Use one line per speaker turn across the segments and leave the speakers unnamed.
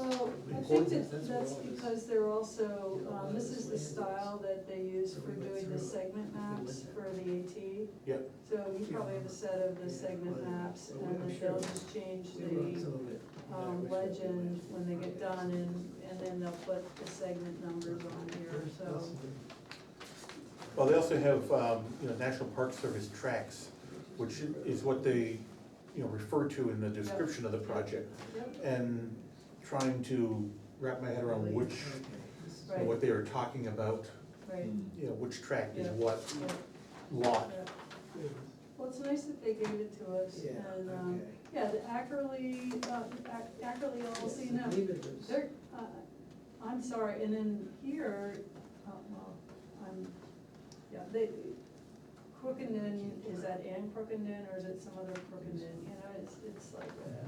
think
according to
that
sensible
that's
ordinance.
because they're also,
You know,
um, this is the
ordinance.
style that they use for doing the segment maps for the AT.
Yep.
So you probably have a set of the segment maps, and then they'll just change the, um, legend when they get done, and, and then they'll put the segment numbers on here, so.
Well, they also have, um, you know, National Park Service tracks, which is what they, you know, refer to in the description of the project.
Yep,
And trying to wrap my head around which, you know, what they are talking about,
right,
you know, which track is
Yeah.
what
yep,
lot.
yep. Well, it's nice that they gave it to us,
Yeah,
and, um,
okay.
yeah, the Ackerly, uh, Ac- Ackerly LLC, no, They're, uh, I'm sorry, and then here, uh, well, I'm, yeah, they, Crookenden, is that Ann Crookenden or is it some other Crookenden? You know, it's, it's like, uh,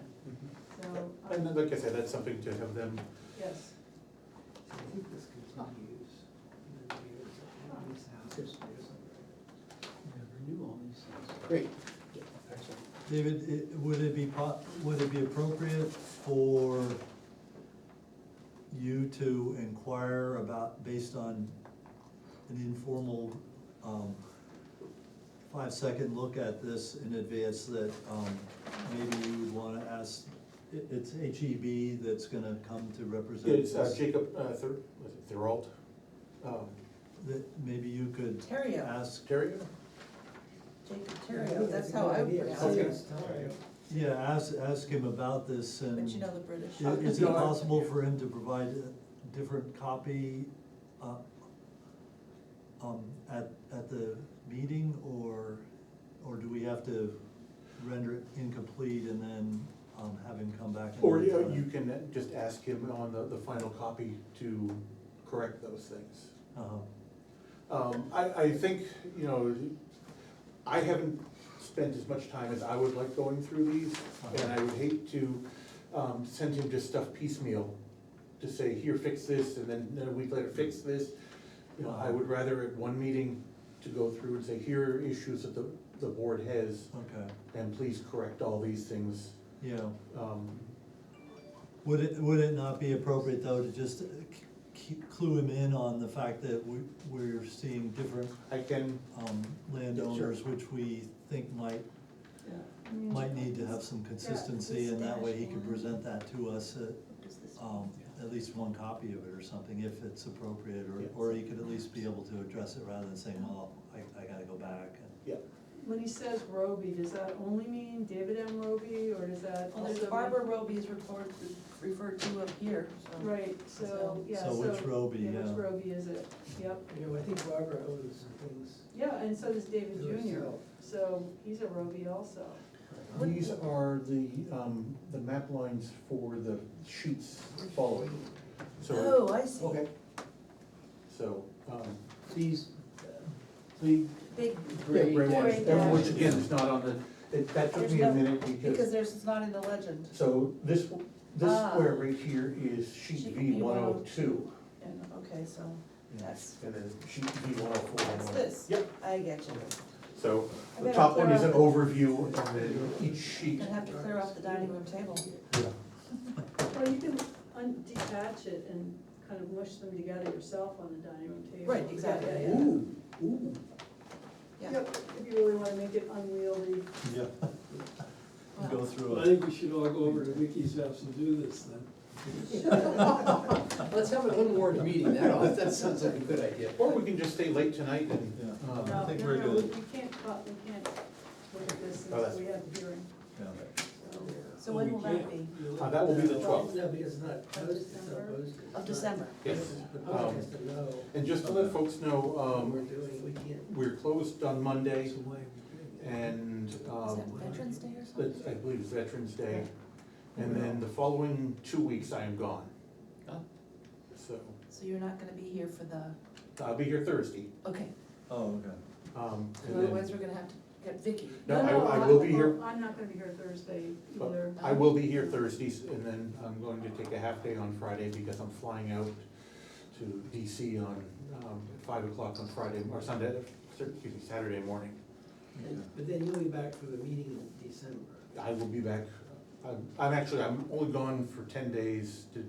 so,
And
um,
then, like I said, that's something to have them,
yes,
I think this could not use.
Never knew all these things.
Great.
David, it- would it be, po- would it be appropriate for you to inquire about, based on an informal, um, five-second look at this in advance, that, um, maybe you would wanna ask, it, it's HEB that's gonna come to represent
it's uh,
this?
Jacob, uh, Thir, was it Thorold? Um,
That maybe you could
Terrio.
ask,
Terrio?
Jacob Terrio, that's how I pronounce it,
yeah, ask, ask him about this and.
but you know the British.
I- Is it
No, I-
possible for him to provide a different copy, uh, um, at, at the meeting, or, or do we have to render it incomplete and then, um, have him come back?
Or, you
another
know,
time?
you can just ask him on the, the final copy to correct those things.
Uh-huh.
Um, I, I think, you know, I haven't spent as much time as I would like going through these, and I would hate to, um, send him just stuff piecemeal, to say, here, fix this, and then, then a week later, fix this. You know, I would rather at one meeting to go through and say, here are issues that the, the board has,
okay,
and please correct all these things.
yeah.
Um,
Would it, would it not be appropriate, though, to just uh, c- c- clue him in on the fact that we, we're seeing different,
I can,
um, landowners, which we think might
I mean,
might need to have some consistency, and that way he can present that to us, uh,
What is this?
um, at least one copy of it or something, if it's appropriate, or, or he could at least be able to address it rather than saying, well, I, I gotta go back. and-
yeah,
when he says Roby, does that only mean David M. Roby, or does that
Well,
also?
there's
mean-
Barbara Roby's report referred to up here, so.
Right, so,
So-
yeah, so.
So which Roby,
yeah,
yeah.
Which Roby is it? Yep,
You know, I think Barbara owes some things
yeah, and so does David
to
Junior,
herself.
so he's a Roby also.
these are the, um, the map lines for the sheets following, so.
Oh, I see,
Okay,
So, um,
these, the
big,
gray.
gray
ones.
dashes.
Gray
which again, is not on the, it- that took
There's
me a
no-
minute
because
because,
there's, it's not in the legend.
so this, this
Ah.
square right here is sheet
Sheet
V one oh two.
V102. And, okay, so that's,
And then sheet V one oh four.
that's this.
Yep,
I get you.
so
I
the
better
top one
clear
is an
out-
overview and then each sheet.
Gonna have to clear off the dining room table.
Yeah.
Well, you can un- detach it and kind of mush them together yourself on the dining room table.
Right, exactly.
Yeah, yeah, yeah.
Ooh, ooh.
Yeah,
Yep, if you really wanna make it unwieldy.
Yeah. Go through
I
it.
think we should all go over to Vicky's house and do this then.
Let's have an unwarned meeting, that, that sounds like a good idea.
Or we can just stay late tonight
Yeah.
and,
I
No,
um,
think
no,
we're
no, we-
good.
We can't, cut- we can't look at this
Oh, that's-
since we have a hearing,
Yeah.
so.
so when will that be?
uh, that will be the twelfth.
No, because it's not posted, it's not
December?
posted.
Of December.
Yes.
The public has to know
And just to let
Okay.
folks know,
what we're
um,
doing, we can't.
we're closed on Monday and,
Is
um,
that Veterans Day or something?
That's, I believe, it's Veterans Day, and then the following two weeks I am gone.
Oh.
So,
So you're not gonna be here for the,
I'll be here Thursday,
okay,
Oh, okay.
um,
because
and then,
otherwise we're gonna have to get Vicky.
no, I, I will be
I'm-
here,
I'm not gonna be here Thursday
Well,
either.
I will be here Thursdays, and then I'm going to take a half day on Friday because I'm flying out to DC on, um, at five o'clock on Friday, or Sunday, excuse me, Saturday morning.
okay.
But then you'll be back for the meeting in December.
I will be back, I'm, I'm actually, I'm only gone for ten days to